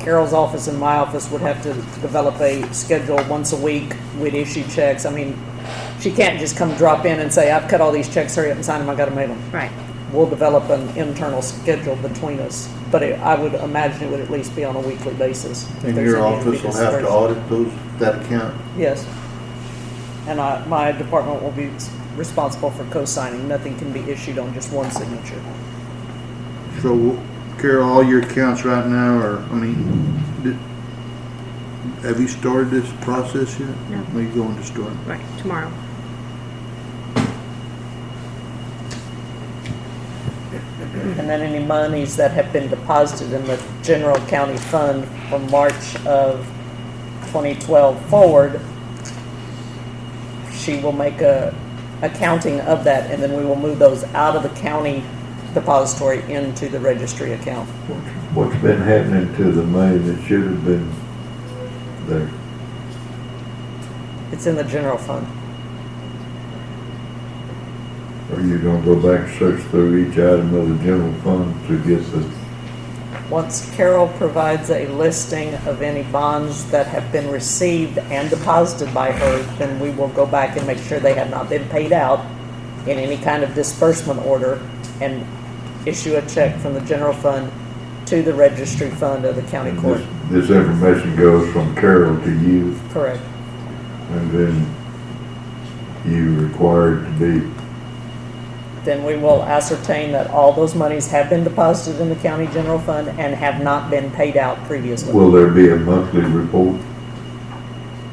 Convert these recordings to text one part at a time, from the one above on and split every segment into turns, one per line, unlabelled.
Carol's office and my office would have to develop a schedule once a week. We'd issue checks. I mean, she can't just come drop in and say, I've cut all these checks, hurry up and sign them, I gotta make them.
Right.
We'll develop an internal schedule between us, but it- I would imagine it would at least be on a weekly basis. if
And
there's
your
any
office will have
concerns.
to audit those, that account?
Yes. And I, my department will be responsible for co-signing. Nothing can be issued on just one signature.
So Carol, all your accounts right now are, I mean, did, have you started this process yet?
No.
Are you going to start?
Right, tomorrow.
And then any monies that have been deposited in the general county fund from March of 2012 forward, she will make a accounting of that, and then we will move those out of the county depository into the registry account.
What's been happening to the money that should have been there?
It's in the general fund.
Are you gonna go back and search through each item of the general fund to get the,
Once Carol provides a listing of any bonds that have been received and deposited by her, then we will go back and make sure they have not been paid out in any kind of disbursement order and issue a check from the general fund to the registry fund of the county
and
court.
this, this information goes from Carol to you,
Correct.
and then you required to be,
Then we will ascertain that all those monies have been deposited in the county general fund and have not been paid out previously.
will there be a monthly report?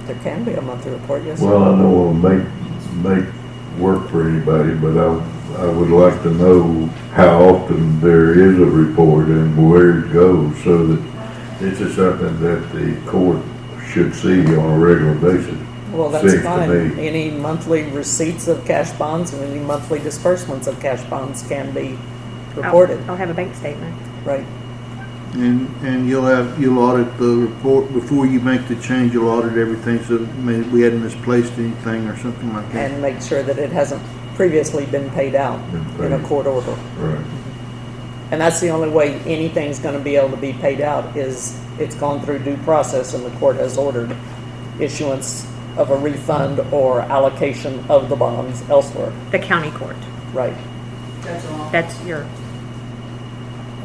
There can be a monthly report, yes.
Well, I know it'll make, make work for anybody, but I, I would like to know how often there is a report and where it goes, so that this is something that the court should see on a regular basis.
Well, that's
Seems to
fine.
me.
Any monthly receipts of cash bonds and any monthly disbursements of cash bonds can be
I'll-
reported,
I'll have a bank statement.
right?
And, and you'll have, you'll audit the report, before you make the change, you'll audit everything, so maybe we hadn't misplaced anything or something like that.
And make sure that it hasn't previously been paid out
Been
in a
paid.
court order.
Right.
And that's the only way anything's gonna be able to be paid out is it's gone through due process and the court has ordered issuance of a refund or allocation of the bonds elsewhere,
The county court.
right?
That's all.
That's your,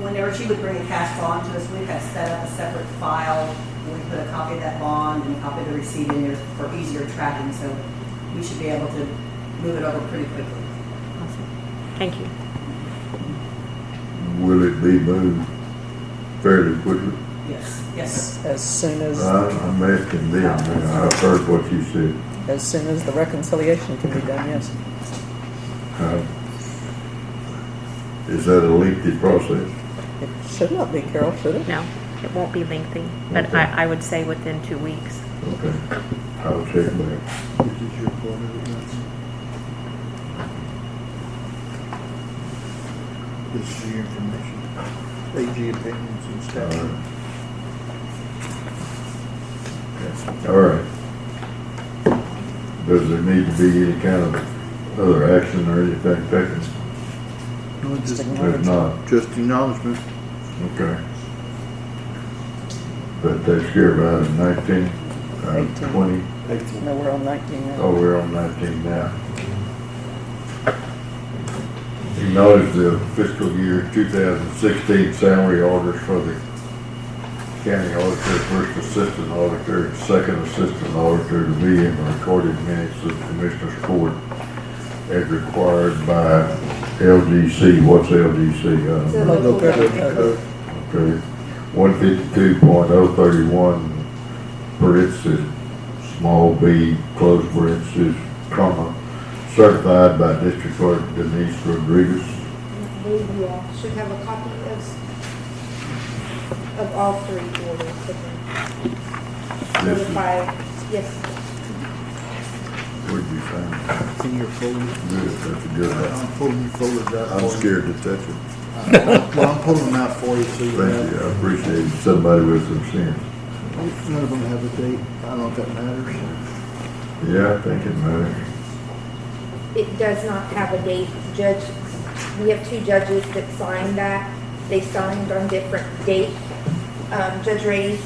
Whenever she would bring a cash bond to us, we had set up a separate file. where We put a copy of that bond and a copy of the receipt in there for easier tracking, so we should be able to move it over pretty quickly.
awesome. Thank you.
Will it be moved fairly quickly?
Yes, yes.
As soon as,
I- I'm asking them, I've heard what you said.
as soon as the reconciliation can be done, yes.
Uh, Is that a lengthy process?
It should not be, Carol, should it?
No, it won't be lengthy, but
Okay.
I, I would say within two weeks.
Okay, I'll check back.
This is your part of it, right? This is your information, AG opinions and
All
stuff.
right. All right. Does there need to be any kind of other action or anything taken?
No,
Just
just-
ignore
If
it.
not,
Just acknowledgement.
okay. But that's here about nineteen, uh,
Eighteen.
twenty.
No, we're on 19 now.
Oh, we're on nineteen now. Acknowledge the fiscal year two thousand sixteen salary orders for the county auditor, first assistant auditor, and second assistant auditor to be in the recorded minutes of the Commissioners Court as required by LGC. What's LGC? I don't know.
Local government code.
Okay, one fifty-two point oh thirty-one, parentheses, small b, close parentheses, comma, certified by District Clerk Denise Rodriguez.
I believe you all should have a copy of, of all three orders. that were
This is-
Notified, yes,
Where'd you find that?
In your folder.
Good, that's a good one.
I'm pulling your folders out.
I'm
for you.
scared to touch it.
Well, I'm pulling them out for you, so you
Thank you,
have.
I appreciate somebody with some sense.
None of them have a date, I don't know if that matters.
Yeah, I think it matters.
it does not have a date. Judge, we have two judges that signed that. They signed on different dates. um, Judge Rady